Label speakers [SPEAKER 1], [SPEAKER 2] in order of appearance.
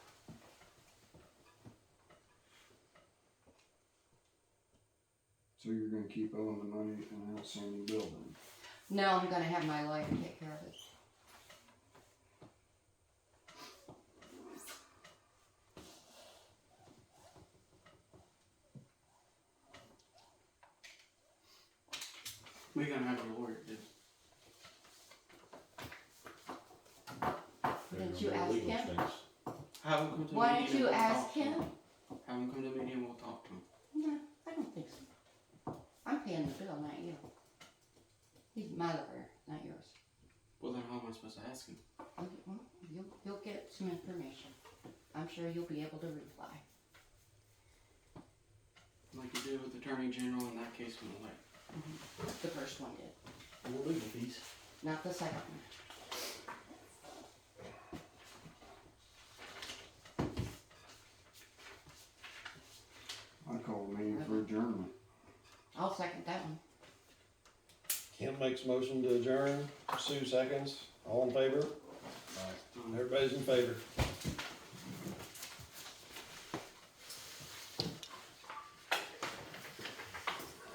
[SPEAKER 1] So you're gonna keep owing the money and outstanding bill then?
[SPEAKER 2] No, I'm gonna have my lawyer take care of it.
[SPEAKER 3] We're gonna have a lawyer do.
[SPEAKER 2] Didn't you ask him?
[SPEAKER 3] Have him come to the meeting.
[SPEAKER 2] Why don't
[SPEAKER 3] and
[SPEAKER 2] you
[SPEAKER 3] we'll
[SPEAKER 2] ask
[SPEAKER 3] talk to
[SPEAKER 2] him?
[SPEAKER 3] Have him come to the meeting and we'll talk to him.
[SPEAKER 2] No, I don't think so. I'm paying the bill, not you. He's my lawyer, not yours.
[SPEAKER 3] Well, then how am I supposed to ask him?
[SPEAKER 2] Okay, well, You'll, you'll get some information. I'm sure you'll be able to reply.
[SPEAKER 3] Like you did with Attorney General in that case when like,
[SPEAKER 2] The first one did,
[SPEAKER 4] Legal fees.
[SPEAKER 2] not the second one.
[SPEAKER 1] I call the meeting for adjournment.
[SPEAKER 2] I'll second that one.
[SPEAKER 5] Kim makes motion to adjourn, Sue seconds, all in favor?
[SPEAKER 3] um,
[SPEAKER 5] Everybody's in favor.